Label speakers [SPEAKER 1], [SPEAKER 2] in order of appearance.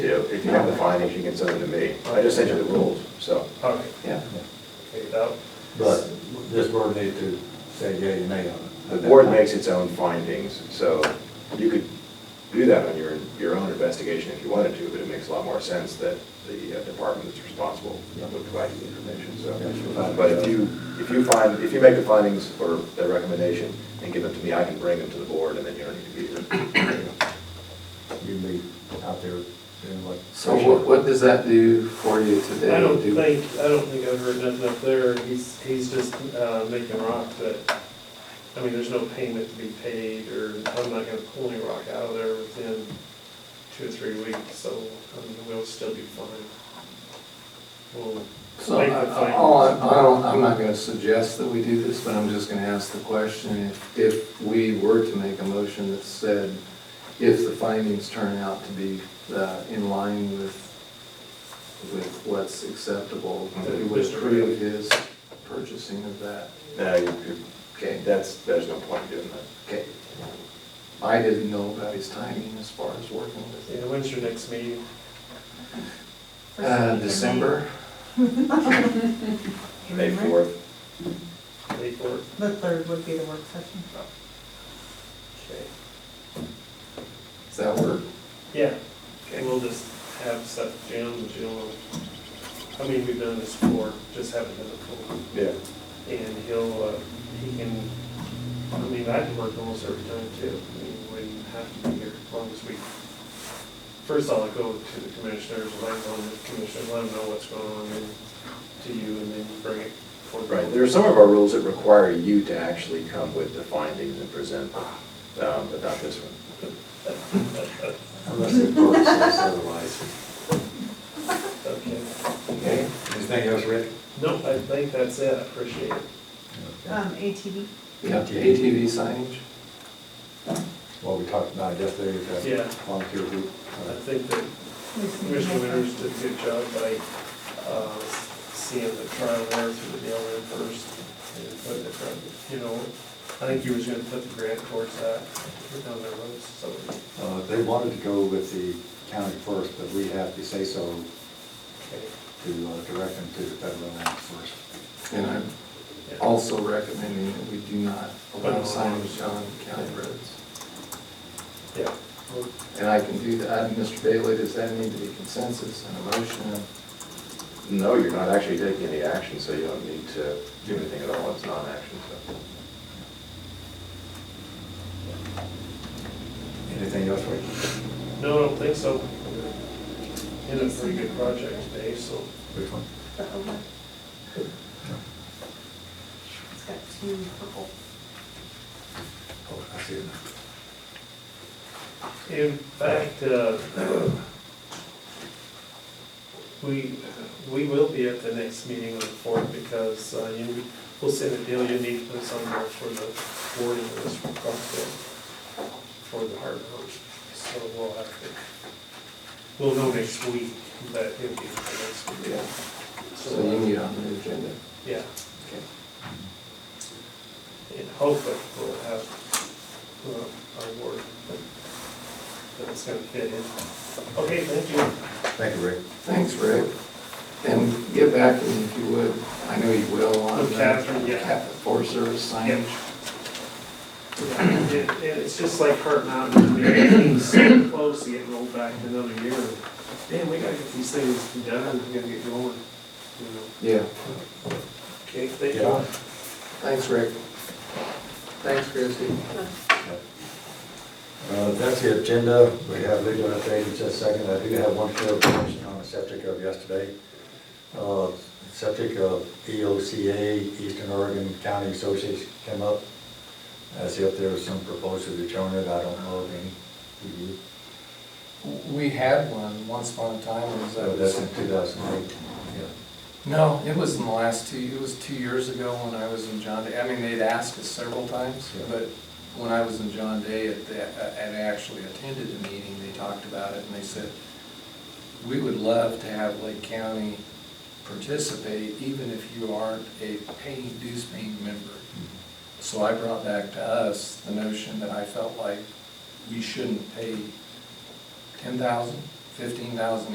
[SPEAKER 1] You know, if you have the findings, you can send them to me. I just sent you the rules, so,
[SPEAKER 2] All right,
[SPEAKER 1] yeah.
[SPEAKER 2] okay, now,
[SPEAKER 3] But this board need to say yea and nay on it.
[SPEAKER 1] The board makes its own findings, so you could do that on your, your own investigation if you wanted to, but it makes a lot more sense that the uh, department that's responsible would provide you the information, so. But if you, if you find, if you make the findings or the recommendation and give them to me, I can bring them to the board and then you don't need to be here.
[SPEAKER 3] You be out there doing what.
[SPEAKER 4] So what, what does that do for you today?
[SPEAKER 2] I don't
[SPEAKER 4] Do-
[SPEAKER 2] think, I don't think I've heard nothing up there, he's, he's just, uh, making rock that, I mean, there's no payment to be paid, or I'm not gonna pull any rock out of there within two or three weeks, so, I mean, we'll still be fine. We'll
[SPEAKER 4] So,
[SPEAKER 2] make
[SPEAKER 4] I,
[SPEAKER 2] the
[SPEAKER 4] I-
[SPEAKER 2] findings.
[SPEAKER 4] all I I don't, I'm not gonna suggest that we do this, but I'm just gonna ask the question, if, if we were to make a motion that said, if the findings turn out to be, uh, in line with, with what's acceptable, that we would
[SPEAKER 2] Mr.
[SPEAKER 4] approve his purchasing of that.
[SPEAKER 1] No, you- you-
[SPEAKER 4] Okay,
[SPEAKER 1] that's, there's no point in doing that.
[SPEAKER 4] okay. I didn't know about his timing as far as working with
[SPEAKER 2] Yeah, when's your next meeting?
[SPEAKER 4] it. Uh, December,
[SPEAKER 1] May fourth,
[SPEAKER 2] May fourth?
[SPEAKER 5] The third would be the work session.
[SPEAKER 2] Okay.
[SPEAKER 4] does that work?
[SPEAKER 2] Yeah,
[SPEAKER 4] Okay.
[SPEAKER 2] and we'll just have stuff jammed, you know, I mean, we've done this before, just haven't done it before.
[SPEAKER 1] yeah.
[SPEAKER 2] And he'll, uh, he can, I mean, I can work almost every time too. I mean, we wouldn't have to be here as long as we, first I'll go to the commissioners, and I go to the commissioners, let them know what's going on and to you and then bring it forward.
[SPEAKER 1] Right, there are some of our rules that require you to actually come with the findings and present them, um, but not this one.
[SPEAKER 3] Unless the board says otherwise.
[SPEAKER 2] Okay.
[SPEAKER 4] Okay.
[SPEAKER 3] Anything else, Rick?
[SPEAKER 2] No, I think that's it. I appreciate it.
[SPEAKER 5] Um, ATV,
[SPEAKER 4] Yeah, ATV signage?
[SPEAKER 3] What we talked about yesterday, is that
[SPEAKER 2] Yeah.
[SPEAKER 3] volunteer group. Uh,
[SPEAKER 2] I think that Commissioner Winters did a good job by, uh, seeing the trial there through the deal in first. and putting it from, you know, I think he was gonna put the grant towards that, down there roads, so.
[SPEAKER 3] Uh, They wanted to go with the county first, but we have to say so
[SPEAKER 2] okay,
[SPEAKER 3] to uh, direct them to the federal land first.
[SPEAKER 4] And I'm
[SPEAKER 2] yeah.
[SPEAKER 4] also recommending that we do not allow signage on county roads.
[SPEAKER 2] Yeah, well,
[SPEAKER 4] And I can do that, And Mr. Bailey, does that need to be consensus and a motion?
[SPEAKER 1] No, you're not actually taking any action, so you don't need to do anything at all, it's non-action, so.
[SPEAKER 3] Anything else, Rick?
[SPEAKER 2] no, I don't think so. In a pretty good project today, so.
[SPEAKER 3] Which one?
[SPEAKER 5] the OLED. It's got two purple.
[SPEAKER 3] Oh, I see it now.
[SPEAKER 2] In fact, uh, we, we will be at the next meeting on the fourth because uh, you, we'll send a deal, you need to put some more for the wording of this proposal for the hard road. So we'll have to, we'll know next week, but it'll be the next week.
[SPEAKER 4] Yeah. So you need it on the agenda.
[SPEAKER 2] Yeah,
[SPEAKER 4] Okay.
[SPEAKER 2] and hopefully we'll have uh, our word that's gonna fit in. Okay, thank you.
[SPEAKER 3] Thank you, Rick.
[SPEAKER 4] Thanks, Rick. And get back to me if you would, I know you will on
[SPEAKER 2] With
[SPEAKER 4] the
[SPEAKER 2] Catherine, yeah.
[SPEAKER 4] Cap- Forest Service signage.
[SPEAKER 2] And and it's just like Heart Mountain, I mean, it's so close to getting rolled back another year. Damn, we gotta get these things done, we gotta get going, you know.
[SPEAKER 4] Yeah,
[SPEAKER 2] Okay, thank
[SPEAKER 3] Yeah.
[SPEAKER 2] you.
[SPEAKER 4] thanks, Rick. Thanks, Christie.
[SPEAKER 3] Uh, That's the agenda. We have legal update in just a second. I do have one clarification on the subject of yesterday. Uh, Subject of E EOCA, Eastern Oregon County Association came up as if there was some proposal to join it. I don't know of any. Do you?
[SPEAKER 4] We had one once upon a time, it was. uh,
[SPEAKER 3] So Oh, that's in 2008.
[SPEAKER 4] No, it was in the last two, it was two years ago when I was in John Day. I mean, they'd asked us several times,
[SPEAKER 3] Yeah.
[SPEAKER 4] but when I was in John Day, at the- and I actually attended the meeting, they talked about it, and they said, we would love to have Lake County participate, even if you aren't a paying, dues paying member. So I brought back to us the notion that I felt like we shouldn't pay ten thousand fifteen thousand